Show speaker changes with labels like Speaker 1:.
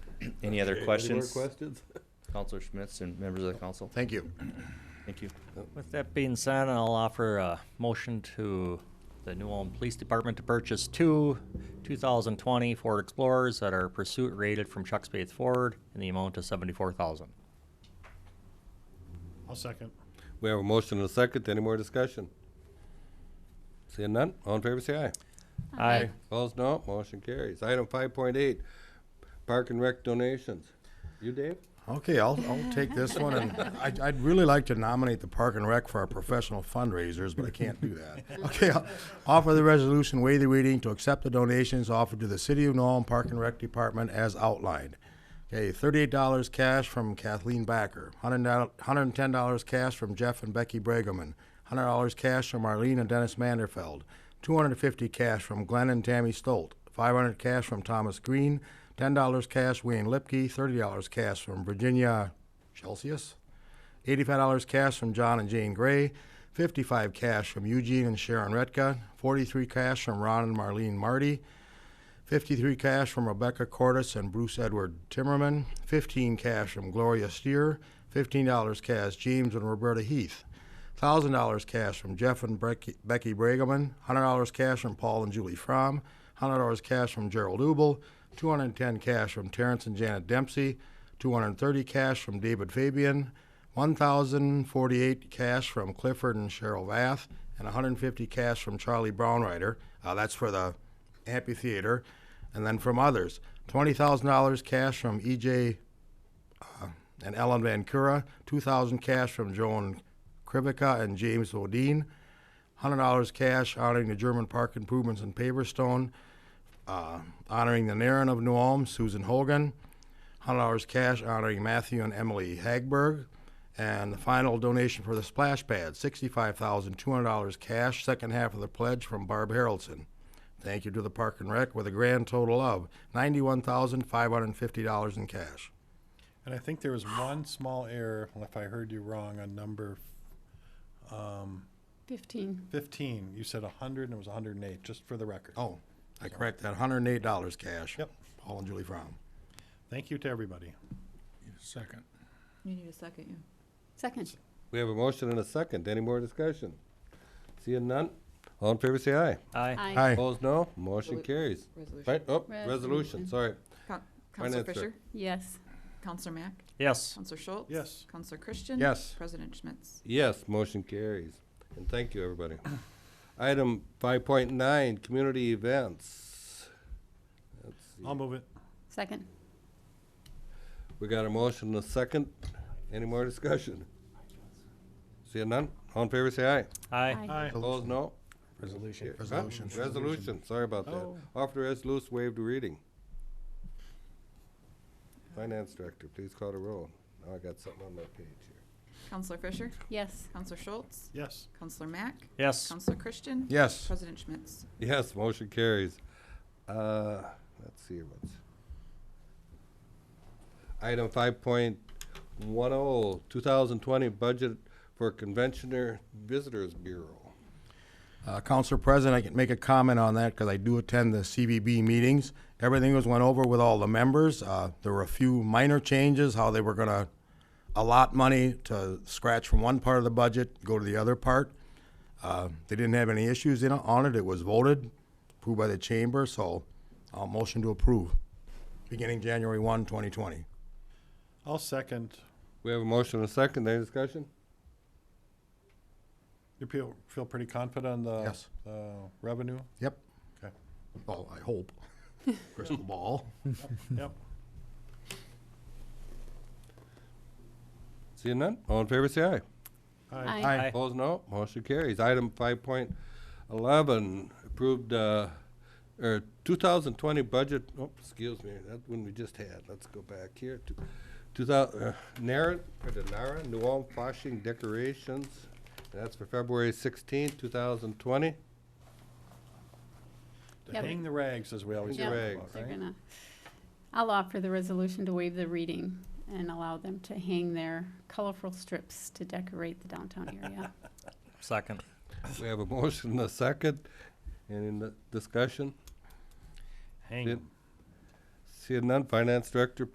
Speaker 1: Any other
Speaker 2: Okay,
Speaker 1: questions?
Speaker 2: Any more questions?
Speaker 1: Counselor Schmitz and members of the council?
Speaker 3: Thank you.
Speaker 1: Thank you.
Speaker 4: With that being said, I'll offer a motion to the New Ulm Police Department to purchase two 2020 Ford Explorers that are pursuit rated from Chuck Spade Ford in the amount of 74000
Speaker 5: I'll second.
Speaker 2: We have a motion and a second. Any more discussion? Seeing none, all in favor say aye.
Speaker 4: Aye.
Speaker 2: Opposed, no. Motion carries. Item five point eight, park and rec donations. You, Dave?
Speaker 3: Okay, I'll, I'll take this one, and I'd, I'd really like to nominate the Park and Rec for our professional fundraisers, but I can't do that. Okay, I'll offer the resolution, waive the reading, to accept the donations offered to the City of Nome Park and Rec Department as outlined. Okay, thirty-eight dollars cash from Kathleen Backer, hundred and ten dollars cash from Jeff and Becky Bregeman, hundred dollars cash from Marlene and Dennis Manderfeld, two hundred and fifty cash from Glenn and Tammy Stolt, five hundred cash from Thomas Green, ten dollars cash Wayne Lipke, thirty dollars cash from Virginia Celsius, eighty-five dollars cash from John and Jane Gray, fifty-five cash from Eugene and Sharon Retka, forty-three cash from Ron and Marlene Marty, 53 cash from Rebecca Cordis and Bruce Edward Timmerman, 15 cash from Gloria Steer, $15 cash James and Roberta Heath, $1,000 cash from Jeff and Brecky, Becky Bregeman, $100 cash from Paul and Julie Fromm, $100 cash from Gerald Ubel, 210 cash from Terrence and Janet Dempsey, 230 cash from David Fabian, 1,048 cash from Clifford and Cheryl Vath, and 150 cash from Charlie Brownrider. Uh, that's for the amphitheater, and then from others, twenty thousand dollars cash from EJ uh, and Ellen Van Cura, two thousand cash from Joan Krivica and James Odine, hundred dollars cash honoring the German Park improvements in Paverstone, uh, honoring the Naren of New Ulm, Susan Hogan, hundred dollars cash honoring Matthew and Emily Hagberg. And the final donation for the splash pad, sixty-five thousand two hundred dollars cash, second half of the pledge from Barb Harrelson. Thank you to the Park and Rec with a grand total of ninety-one thousand five hundred and fifty dollars in cash.
Speaker 5: And I think there was one small error, if I heard you wrong, on number um,
Speaker 6: 15.
Speaker 5: fifteen. You said hundred and it was hundred and eight, just for the record.
Speaker 3: Oh, I correct that, hundred and eight dollars cash.
Speaker 5: Yep.
Speaker 3: Paul and Julie Fromm.
Speaker 5: Thank you to everybody.
Speaker 7: Second.
Speaker 8: You need a second, yeah.
Speaker 6: Second.
Speaker 2: We have a motion and a second. Any more discussion? Seeing none, all in favor say aye.
Speaker 4: Aye.
Speaker 6: Aye.
Speaker 3: Hi,
Speaker 2: Opposed, no. Motion
Speaker 8: Resolu-
Speaker 2: carries.
Speaker 8: Resolution.
Speaker 2: Right, oh,
Speaker 6: Resolution.
Speaker 2: resolution, sorry.
Speaker 8: Coun-
Speaker 2: Finance
Speaker 8: Counselor
Speaker 2: Director.
Speaker 8: Fisher,
Speaker 6: Yes.
Speaker 8: Counselor Mack,
Speaker 4: Yes.
Speaker 8: Counselor Schultz.
Speaker 5: Yes.
Speaker 8: Counselor Christian.
Speaker 3: Yes.
Speaker 8: President Schmitz.
Speaker 2: Yes, motion carries. And thank you, everybody. Item five point nine, community events. Let's see.
Speaker 5: I'll move it.
Speaker 6: Second.
Speaker 2: We got a motion and a second. Any more discussion? Seeing none, all in favor say aye.
Speaker 4: Aye.
Speaker 5: Aye.
Speaker 2: Opposed, no.
Speaker 3: Resolution.
Speaker 2: Huh?
Speaker 3: Resolution.
Speaker 2: Resolution, sorry about that.
Speaker 5: Oh.
Speaker 2: Offer the resolution, waive the reading. Finance Director, please call the roll. Now I got something on my page here.
Speaker 8: Counselor Fisher,
Speaker 6: Yes.
Speaker 8: Counselor Schultz,
Speaker 5: Yes.
Speaker 8: Counselor Mack,
Speaker 4: Yes.
Speaker 8: Counselor Christian.
Speaker 3: Yes.
Speaker 8: President Schmitz.
Speaker 2: Yes, motion carries. Uh, let's see what's. Item five point one oh, two thousand twenty budget for Conventioner Visitors Bureau.
Speaker 3: Uh, Council President, I can make a comment on that because I do attend the CVB meetings. Everything was went over with all the members. Uh, there were a few minor changes, how they were gonna allot money to scratch from one part of the budget, go to the other part. Uh, they didn't have any issues in, on it. It was voted, approved by the chamber, so I'll motion to approve, beginning January one, twenty twenty.
Speaker 5: I'll second.
Speaker 2: We have a motion and a second. Any discussion?
Speaker 5: You feel, feel pretty confident on the
Speaker 3: Yes.
Speaker 5: the revenue?
Speaker 3: Yep.
Speaker 5: Okay.
Speaker 3: Well, I hope. Crystal ball.
Speaker 5: Yep.
Speaker 2: Seeing none, all in favor say aye.
Speaker 5: Aye.
Speaker 3: Aye.
Speaker 2: Opposed, no. Motion carries. Item five point eleven, approved, uh, or two thousand twenty budget, oh, excuse me, that one we just had. Let's go back here to two thousand, uh, Nara, or the Nara, New Ulm flashing decorations. That's for February sixteenth, two thousand twenty.
Speaker 5: To
Speaker 6: Yep.
Speaker 5: Hang the rags, as we always
Speaker 2: Hang
Speaker 5: talk
Speaker 2: the
Speaker 5: about,
Speaker 2: rags.
Speaker 6: They're
Speaker 5: right?
Speaker 6: gonna, I'll offer the resolution to waive the reading and allow them to hang their colorful strips to decorate the downtown area.
Speaker 4: Second.
Speaker 2: We have a motion and a second, and in the discussion,
Speaker 5: Hang 'em.
Speaker 2: seeing none, Finance Director,